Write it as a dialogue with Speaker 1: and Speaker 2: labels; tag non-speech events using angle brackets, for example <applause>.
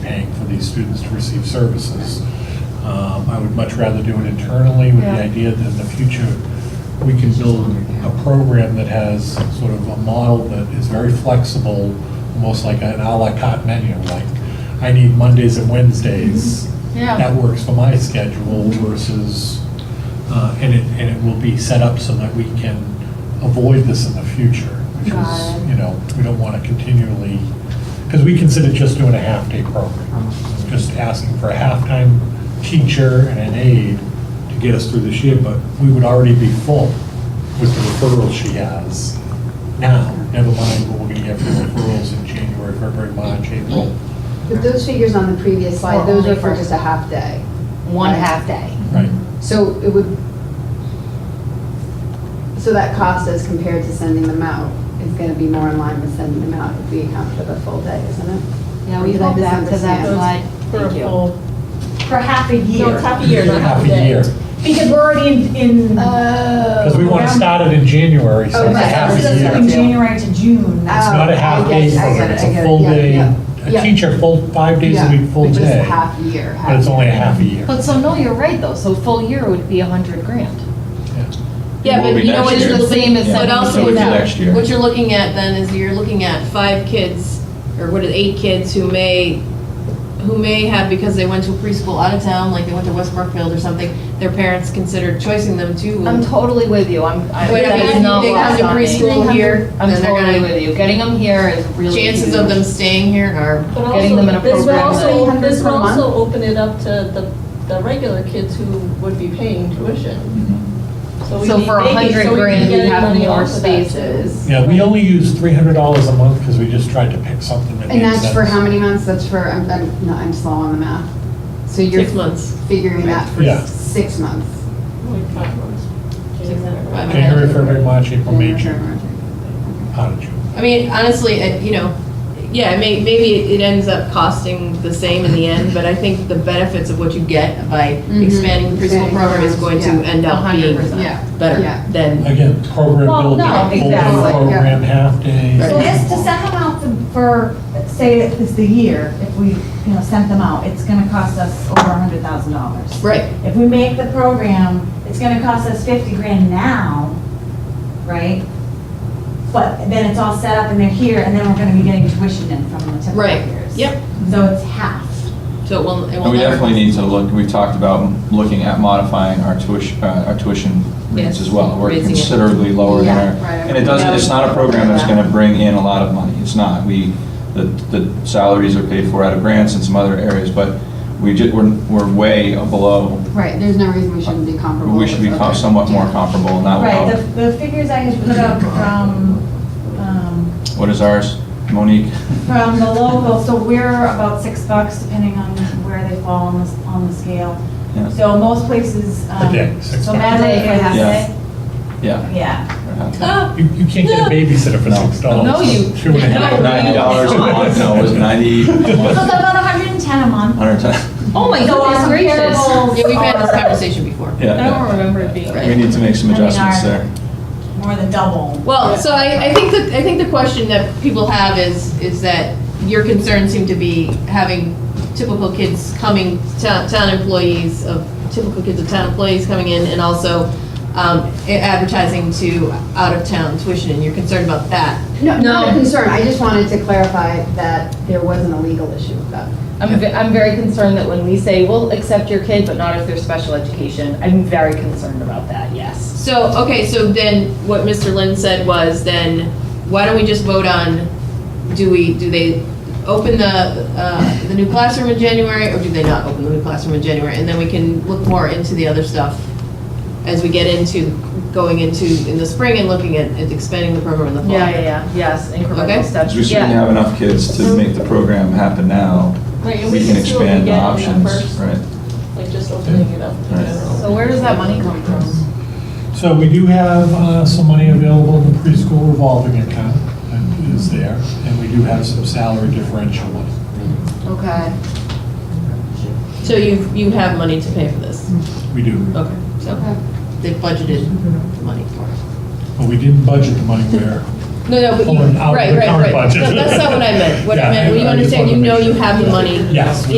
Speaker 1: paying for these students to receive services. Um, I would much rather do it internally with the
Speaker 2: Yeah.
Speaker 1: idea that in the future, we can build a program that has sort of a model that is very flexible, almost like an à la carte menu, like, I need Mondays and Wednesdays.
Speaker 2: Mm-hmm. Yeah.
Speaker 1: That works for my schedule versus, uh, and it, and it will be set up so that we can avoid this in the future, which
Speaker 2: Got
Speaker 1: is,
Speaker 2: it.
Speaker 1: you know, we don't want to continually, because we consider just doing a half-day program, just asking for a half-time teacher and an aide to get us through this year, but we would already be full with the referrals she has now, never mind what we're going to get for referrals in January, February, March, April.
Speaker 3: But those figures on the previous slide, those are for just a half day.
Speaker 4: one half day.
Speaker 1: Right.
Speaker 3: So it would, so that cost as compared to sending them out is going to be more in line with sending them out if we account for the full day, isn't it?
Speaker 4: Yeah, we
Speaker 3: Did I
Speaker 4: go back to that
Speaker 3: misunderstand?
Speaker 4: slide.
Speaker 5: For a
Speaker 4: Thank you.
Speaker 5: full, for half a year.
Speaker 4: No, it's half a year,
Speaker 1: not half a Half a day. year.
Speaker 5: Because we're already in, in.
Speaker 1: Because we want to start it in January, so
Speaker 3: Oh,
Speaker 1: it's a
Speaker 3: right.
Speaker 1: half
Speaker 5: So
Speaker 1: a
Speaker 5: that's
Speaker 1: year.
Speaker 5: from January to June.
Speaker 1: It's not a half day
Speaker 3: Oh, I get
Speaker 1: program,
Speaker 3: it,
Speaker 1: it's
Speaker 3: I get
Speaker 1: a
Speaker 3: it,
Speaker 1: full
Speaker 3: yeah,
Speaker 1: day,
Speaker 3: yeah,
Speaker 1: a
Speaker 3: yeah.
Speaker 1: teacher full, five days a
Speaker 3: Yeah,
Speaker 1: week, full
Speaker 3: But just
Speaker 1: day.
Speaker 3: half year. half
Speaker 1: But it's only a half a year.
Speaker 4: But so, no, you're right, though, so full year would be a hundred grand.
Speaker 6: Yeah, but you know what
Speaker 4: Which is
Speaker 6: you're
Speaker 4: the same as
Speaker 6: But
Speaker 4: sending
Speaker 6: also,
Speaker 4: kids
Speaker 6: what
Speaker 4: out.
Speaker 6: you're- what you're looking at then is you're looking at five kids, or what is, eight kids who may, who may have, because they went to preschool out of town, like they went to West Brookfield or something, their parents considered choicing them to.
Speaker 4: I'm totally with you, I'm, I-
Speaker 6: But if
Speaker 4: that
Speaker 6: they-
Speaker 4: is not
Speaker 6: they come
Speaker 4: lost
Speaker 6: to
Speaker 4: on me.
Speaker 6: preschool here,
Speaker 4: I'm
Speaker 6: then they're
Speaker 4: totally
Speaker 6: gonna-
Speaker 4: with you, getting them here is really
Speaker 6: Chances of them
Speaker 4: huge.
Speaker 6: staying here are
Speaker 7: But
Speaker 4: Getting them in a
Speaker 7: also, this will
Speaker 4: program
Speaker 7: also,
Speaker 3: that-
Speaker 7: this will
Speaker 3: 800 per month?
Speaker 7: also open it up to the, the regular kids who would be paying tuition. we
Speaker 4: So
Speaker 7: need-
Speaker 4: for a
Speaker 7: they can-
Speaker 4: hundred
Speaker 7: so we can
Speaker 4: grand, we
Speaker 7: get
Speaker 4: have
Speaker 7: money
Speaker 4: more
Speaker 7: off of that too.
Speaker 4: spaces.
Speaker 1: Yeah, we only use three hundred dollars a month because we just tried to pick something that
Speaker 3: And
Speaker 1: made
Speaker 3: that's for how
Speaker 1: sense.
Speaker 3: many months? That's for, I'm, I'm, no, I'm slow on the math. So you're
Speaker 6: six months.
Speaker 3: figuring that for
Speaker 1: Yeah.
Speaker 3: six months.
Speaker 7: Only five months.
Speaker 6: Six hundred, five hundred.
Speaker 1: January, February, March, April, May,
Speaker 3: January,
Speaker 1: June,
Speaker 3: February, March.
Speaker 1: out of June.
Speaker 6: I mean, honestly, it- you know, yeah, it may, maybe it ends up costing the same in the end, but I think the benefits of what you get by
Speaker 7: Mm-hmm.
Speaker 3: Mhm.
Speaker 6: expanding the preschool
Speaker 3: Expanding
Speaker 6: program is going to
Speaker 3: programs,
Speaker 6: end up being
Speaker 4: 100%.
Speaker 3: Yeah.
Speaker 6: better
Speaker 3: Yeah.
Speaker 6: than
Speaker 1: Again, program
Speaker 5: Well,
Speaker 1: building,
Speaker 5: no,
Speaker 1: full day
Speaker 4: exactly,
Speaker 3: yeah.
Speaker 1: program, half day.
Speaker 5: So this, to send them out for, say, it's the year, if we, you know, sent them out, it's gonna cost us over a hundred thousand dollars.
Speaker 6: Right.
Speaker 5: If we make the program, it's gonna cost us fifty grand now, right? But then it's all set up and they're here, and then we're gonna be getting tuition in from the typical
Speaker 6: Right.
Speaker 5: years.
Speaker 6: Yep.
Speaker 5: So it's half.
Speaker 6: So it will, it
Speaker 8: And
Speaker 6: will
Speaker 8: we
Speaker 6: never.
Speaker 8: definitely need to look, we've talked about looking at modifying our tuition, uh, our tuition rates
Speaker 6: Yes,
Speaker 8: as well. We're
Speaker 6: raising it.
Speaker 8: considerably lower than
Speaker 4: Yeah,
Speaker 8: our,
Speaker 3: right.
Speaker 8: and it doesn't, it's not a program that's gonna bring in a lot of money. It's not. We, the, the salaries are paid for out of grants and some other areas, but we just, we're, we're way below.
Speaker 3: Right, there's no reason we shouldn't be comparable.
Speaker 8: We should be
Speaker 3: with
Speaker 8: com-
Speaker 3: other-
Speaker 8: somewhat more comparable and not,
Speaker 5: Right, the,
Speaker 8: without-
Speaker 5: the figures I had put up from, um,
Speaker 8: what is ours, Monique? <laughs>
Speaker 5: from the local, so we're about six bucks depending on where they fall on the, on the scale. <laughs>
Speaker 8: Yeah.
Speaker 5: So most places, um,
Speaker 1: A day, six
Speaker 5: so
Speaker 1: bucks.
Speaker 5: Madeline,
Speaker 4: Yeah.
Speaker 5: half
Speaker 8: Yeah.
Speaker 5: day,
Speaker 8: Yeah.
Speaker 5: yeah.
Speaker 1: You, you can't get a babysitter for
Speaker 8: No.
Speaker 1: six dollars.
Speaker 4: No, you-
Speaker 1: Two and a half.
Speaker 8: Ninety dollars a month, no, it was ninety,
Speaker 5: So it's
Speaker 8: hundred
Speaker 5: about hundred and ten a month.
Speaker 8: and ten.
Speaker 4: Oh my
Speaker 5: So
Speaker 4: goodness
Speaker 5: our
Speaker 4: gracious.
Speaker 5: comparables
Speaker 6: Yeah, we've had this
Speaker 5: are
Speaker 6: conversation before.
Speaker 8: <laughs> Yeah,
Speaker 4: I don't
Speaker 8: yeah.
Speaker 4: remember it being.
Speaker 8: We need to make some
Speaker 5: I mean,
Speaker 8: adjustments
Speaker 5: our-
Speaker 8: there.
Speaker 5: More than double.
Speaker 6: Well, so I, I think that, I think the question that people have is, is that your concerns seem to be having typical kids coming, town, town employees of, typical kids of town employees coming in and also um, advertising to out-of-town tuition, and you're concerned about that.
Speaker 3: No, not a
Speaker 4: No.
Speaker 3: concern, I just wanted to clarify that there wasn't a legal issue with that.
Speaker 4: I'm, ve- I'm very concerned that when we say, we'll accept your kid, but not if they're special education, I'm very concerned about that, yes.
Speaker 6: So, okay, so then what Mr. Lynn said was then, why don't we just vote on, do we, do they open the, uh, the new classroom in January or do they not open the new classroom in January? And then we can look more into the other stuff as we get into, going into, in the spring and looking at at expanding the program in the fall.
Speaker 4: Yeah, yeah, yeah, yes,
Speaker 6: Okay.
Speaker 4: incremental steps,
Speaker 8: Because we certainly
Speaker 4: yeah.
Speaker 8: have enough kids to make the program happen now.
Speaker 7: Right, and
Speaker 8: We can
Speaker 7: see what we
Speaker 8: expand the
Speaker 7: get in
Speaker 8: options,
Speaker 7: first,
Speaker 8: right?
Speaker 7: Like just opening it up in
Speaker 8: Right.
Speaker 7: general.
Speaker 4: So where does that money come from?
Speaker 1: So we do have uh, some money available in the preschool revolving account that is there, and we do have some salary differential money.
Speaker 4: Okay.
Speaker 6: So you, you have money to pay for this?
Speaker 4: Mm-hmm.
Speaker 1: We do.
Speaker 6: Okay, so they budgeted the money for it.
Speaker 1: But we didn't budget the money where
Speaker 6: No, no, but you,
Speaker 1: Pulling out of
Speaker 6: right,
Speaker 1: the
Speaker 6: right,
Speaker 1: current
Speaker 6: right.
Speaker 1: budget.
Speaker 6: No, that's not what I meant. What
Speaker 1: Yeah,
Speaker 6: I meant, well, you
Speaker 1: I just
Speaker 6: understand,
Speaker 1: wanted
Speaker 6: you
Speaker 1: to
Speaker 6: know
Speaker 1: make
Speaker 6: you
Speaker 1: sure.
Speaker 6: have the money
Speaker 1: Yes.
Speaker 6: in